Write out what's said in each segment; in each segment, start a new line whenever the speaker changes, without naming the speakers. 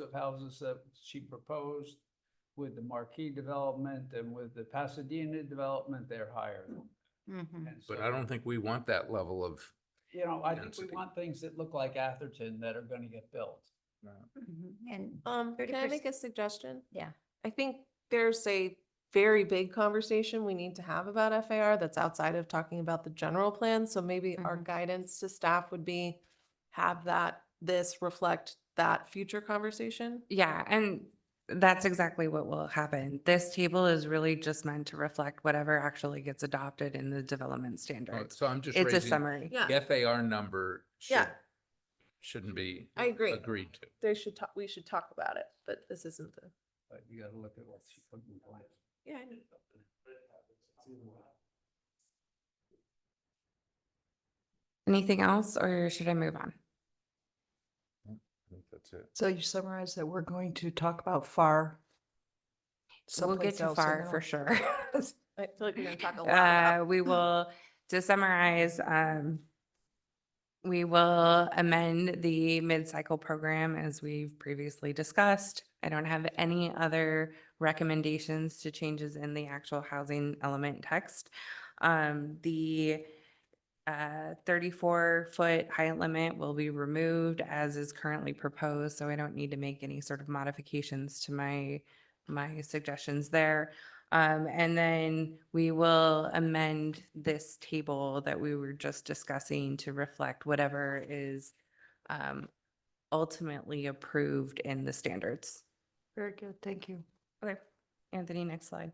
of houses that she proposed with the Marquee development and with the Pasadena development, they're higher.
Mm-hmm.
Mhm.
And
But
so,
I don't think we want that level of,
You know, I think we
density.
want things that look like Atherton that are gonna get built.
Mhm. And,
Um, can I
30%.
make a suggestion?
yeah,
I think there's a very big conversation we need to have about FAR that's outside of talking about the general plan. So maybe our
Mhm.
guidance to staff would be have that, this reflect that future conversation.
Yeah, and that's exactly what will happen. This table is really just meant to reflect whatever actually gets adopted in the development standards.
Oh, so I'm just
It's a
raising,
summary.
Yeah,
the FAR number should,
Yeah.
shouldn't be
I agree.
agreed to.
They should talk, we should talk about it, but this isn't the.
But you gotta look at what she's looking for.
Yeah.
Anything else, or should I move on?
I think That's it.
So you summarize that we're going to talk about FAR.
We'll get
someplace
to
else and
FAR
then
for
I'll-
sure.
I feel like we're gonna talk a lot
Uh,
about.
we will, to summarize, um, we will amend the mid-cycle program as we've previously discussed. I don't have any other recommendations to changes in the actual housing element text. Um, the, uh, thirty-four foot height limit will be removed as is currently proposed, so I don't need to make any sort of modifications to my, my suggestions there. Um, and then we will amend this table that we were just discussing to reflect whatever is um, ultimately approved in the standards.
Very good, thank you.
Okay, Anthony, next slide.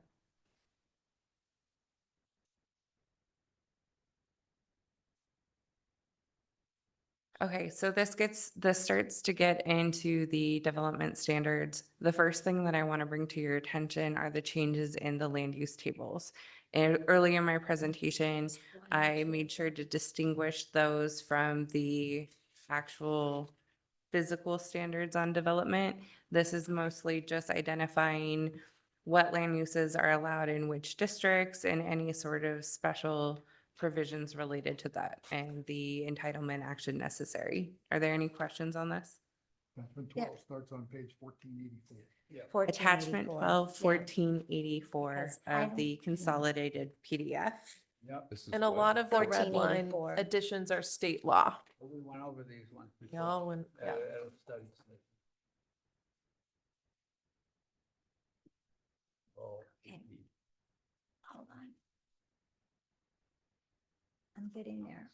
Okay, so this gets, this starts to get into the development standards. The first thing that I want to bring to your attention are the changes in the land use tables. And earlier in my presentation, I made sure to distinguish those from the actual physical standards on development. This is mostly just identifying what land uses are allowed in which districts and any sort of special provisions related to that and the entitlement action necessary. Are there any questions on this?
Attachment
Yeah.
twelve starts on page fourteen eighty-four.
Attachment
1484.
twelve
Yeah.
fourteen eighty-four
Because I
of
don't-
the consolidated PDF.
Yep,
This is
And a
what-
lot of the red
1484.
line additions are state law.
we went over these ones before.
Y'all, when,
Uh,
yeah.
uh, studies. Oh,
Okay. Hold on. I'm getting there.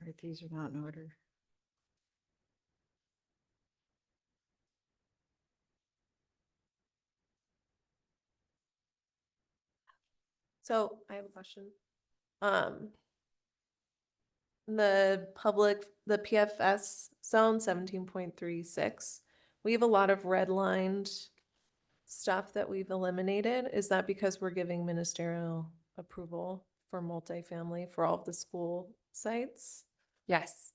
All right, these are not in order.
So I have a question. Um, the public, the PFS zone seventeen point three six, we have a lot of redlined stuff that we've eliminated. Is that because we're giving ministerial approval for multifamily for all of the school sites?
Yes.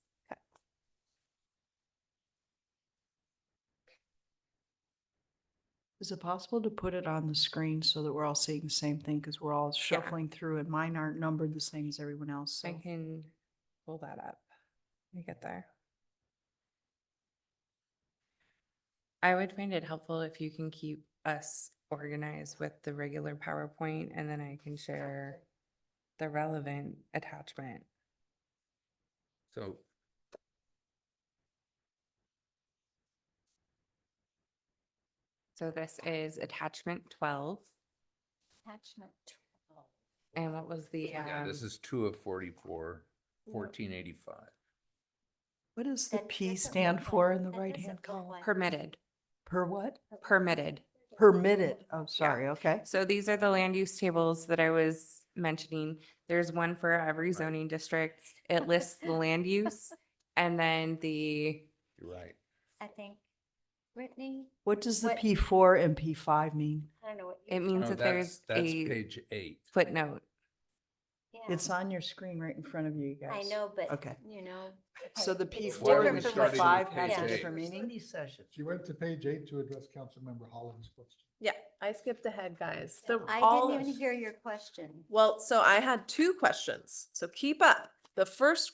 Is it possible to put it on the screen so that we're all seeing the same thing? Because we're all shuffling through and mine aren't numbered the same as everyone else, so.
I can pull that up. Let me get there. I would find it helpful if you can keep us organized with the regular PowerPoint and then I can share the relevant attachment.
So.
So this is attachment twelve.
Attachment twelve.
And what was the?
Yeah, Oh this
um,
is two of 44, 1485.
What does the
That
P
doesn't look
stand
like-
for in the
that
right-hand
doesn't look
column?
like-
um, Permitted,
Per what?
permitted.
Permitted, oh, sorry, okay.
So these are the land use tables that I was mentioning. There's one for every zoning district. It lists the land use and then the,
You're right.
I think
Oh.
Brittany,
What does the
What-
P four and P five mean?
I don't know what.
It
you're
means
No,
that
talking-
that's,
there's
that's
a-
page eight.
footnote.
yeah.
It's on your screen right in front of you guys.
I know, but,
Okay.
you know.
So the
it's
P
Why are
four
we
different
and P
from
starting
what
with
five
you-
page
has a
yeah.
eight?
different meaning?
session.
She went to page eight to address Councilmember Holland's question.
Yeah, I skipped ahead, guys. The-
I
all-
didn't even hear your question.
Well, so I had two questions, so keep up. The first